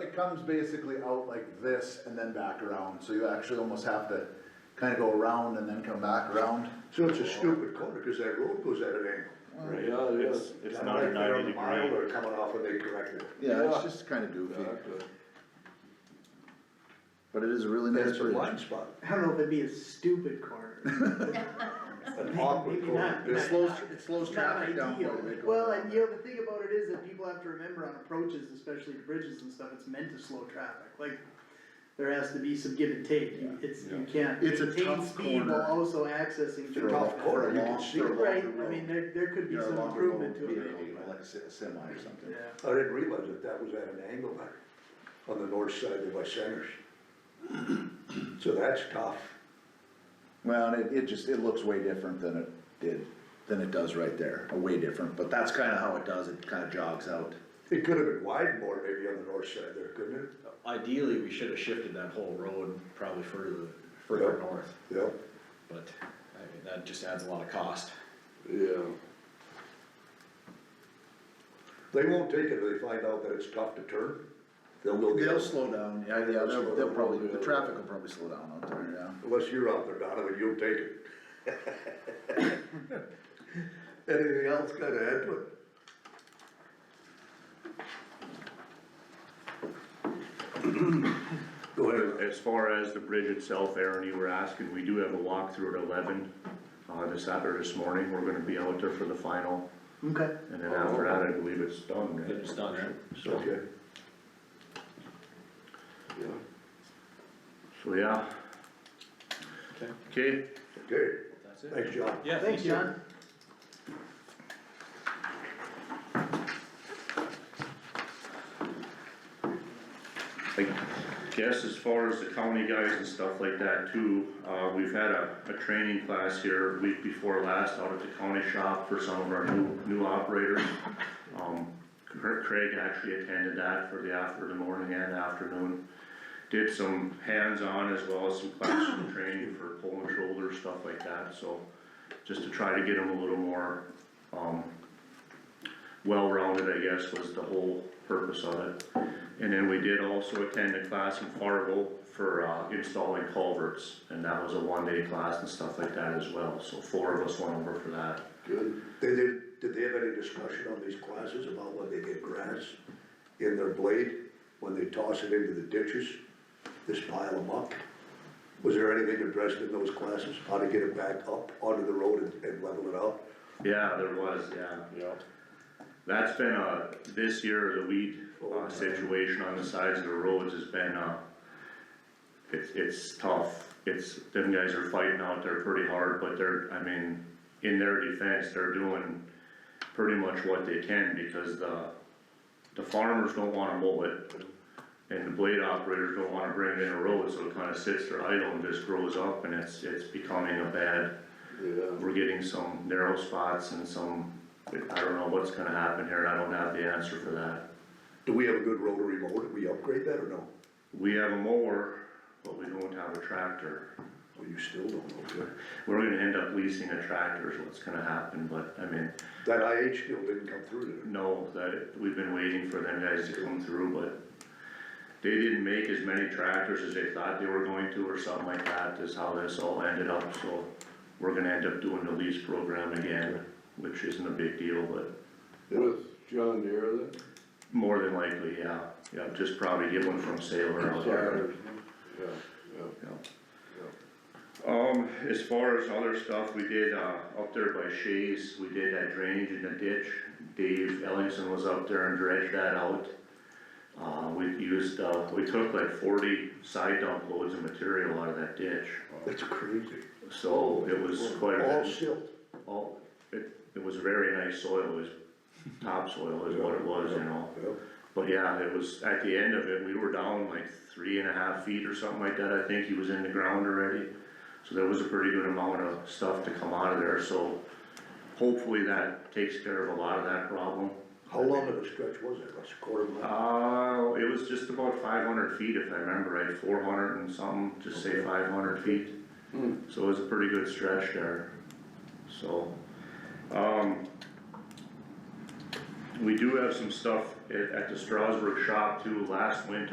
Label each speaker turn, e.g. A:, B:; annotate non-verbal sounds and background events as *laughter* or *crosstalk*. A: it comes basically out like this and then back around, so you actually almost have to kinda go around and then come back around.
B: So it's a stupid corner, cause that road goes at an angle.
C: Right.
D: Yeah, it is.
C: It's not a
B: Like they're
C: ninety
B: on the mile
C: degree.
B: Or coming off and they corrected it.
A: Yeah, it's just kinda goofy, but it is a really nice
B: That's a
A: bridge.
B: blind spot,
E: I don't know if it'd be a stupid
A: *laughs*
E: corner.
B: an awkward
E: Maybe
B: corner.
E: not.
A: It slows, it slows
E: It's not
A: traffic down quite a
E: ideal.
A: bit.
E: Well, and you know, the thing about it is that people have to remember on approaches, especially to bridges and stuff, it's meant to slow traffic, like, there has to be some give and take, You- it's, you can't
A: It's a
E: maintain
A: tough
E: speed
A: corner.
E: while also accessing
A: For a-
E: traffic.
B: tough corner, you
A: for a long-
B: can see
A: for a
B: it.
A: longer
E: Right, I
A: road.
E: mean, there, there could be
A: You know,
E: some
A: longer
E: improvement
A: road,
E: to it.
A: you know, Like a se- semi or something.
E: Yeah.
B: I didn't realize that that was at an angle there, on the north side of West Centers. *clears throat* So that's tough.
A: Well, and it, it just, it looks way different than it did, than it does right there, Uh, way different, but that's kinda how it does, it kinda jogs out.
B: It could have been widened more maybe on the north side there, couldn't it?
D: Ideally, we should have shifted that whole road probably further, further
B: Yeah.
D: north,
B: Yeah.
D: but I mean, that just adds a lot of cost.
C: Yeah.
B: They won't take it if they find out that it's tough to turn. They'll go get
A: They'll
B: it.
A: slow down, yeah, yeah, they'll, they'll probably, the traffic will probably slow down out there, yeah.
B: Unless you're out there, Donovan, you'll take it. *laughs* Anything else got to add to it? *clears throat* Go ahead.
C: As far as the bridge itself, Aaron, you were asking, we do have a walkthrough at eleven, uh, this Saturday, this morning, we're gonna be out there for the final,
E: Okay,
C: and then after that, I believe it's done, right?
D: It's done, right?
C: So,
B: Okay.
C: so, yeah.
D: Okay.
C: Okay,
B: Okay,
D: That's it?
B: thanks, John.
D: Yeah,
E: thanks, John.
C: I guess as far as the county guys and stuff like that too, uh, we've had a, a training class here week before last out at the county shop for some of our new, new operators. Um, Cra- Craig actually attended that for the after, the morning and afternoon. Did some hands-on as well as some classroom training for pulling shoulders, stuff like that, so just to try to get them a little more, um, well-rounded, I guess, was the whole purpose of it. And then we did also attend a class in Fargo for uh, installing culverts, and that was a one-day class and stuff like that as well, so four of us went over for that.
B: Good. They did, did they have any discussion on these classes about when they get grass in their blade, when they toss it into the ditches, this pile of muck? Was there anything addressed in those classes, how to get it back up onto the road and, and level it out?
C: Yeah, there was, yeah.
D: Yep.
C: That's been, uh, this year, the weed uh, situation on the sides of the roads has been, uh, it's, it's tough. It's, them guys are fighting out there pretty hard, but they're, I mean, in their defense, they're doing pretty much what they can because the, the farmers don't wanna mow it. And the blade operators don't wanna bring it in a road, so it kinda sits there idle and just grows up and it's, it's becoming a bad we're getting some narrow spots and some, I don't know what's gonna happen here, I don't have the answer for that.
B: Do we have a good rotary mower, did we upgrade that or no?
C: We have a mower, but we don't have a tractor.
B: Well, you still don't, okay.
C: We're gonna end up leasing a tractor is what's gonna happen, but I mean,
B: That IH deal didn't come through did it?
C: no, that, we've been waiting for them guys to come through, but they didn't make as many tractors as they thought they were going to or something like that, is how this all ended up, so we're gonna end up doing the lease program again, which isn't a big deal, but
F: With John Deere then?
C: More than likely, yeah, yeah, just probably get one from Sailor out there.
F: Yeah, yeah.
C: Um, as far as other stuff, we did, uh, up there by Shays, we did that drainage in the ditch. Dave Ellingson was up there and dredged that out. Uh, we used, uh, we took like forty side dump loads of material out of that ditch,
B: That's crazy.
C: so Oh, it was quite a
B: All
C: bit.
B: silt.
C: All, it, it was very nice soil, it was topsoil is what it was, you know?
B: Yeah.
C: But yeah, it was, at the end of it, we were down like three and a half feet or something like that, I think he was in the ground already. So there was a pretty good amount of stuff to come out of there, so hopefully that takes care of a lot of that problem.
B: How long of a stretch was it, that's a quarter mile?
C: Uh, it was just about five hundred feet if I remember right, four hundred and something, just say five hundred feet. So it was a pretty good stretch there, so, um. We do have some stuff at, at the Strasburg shop too, last winter,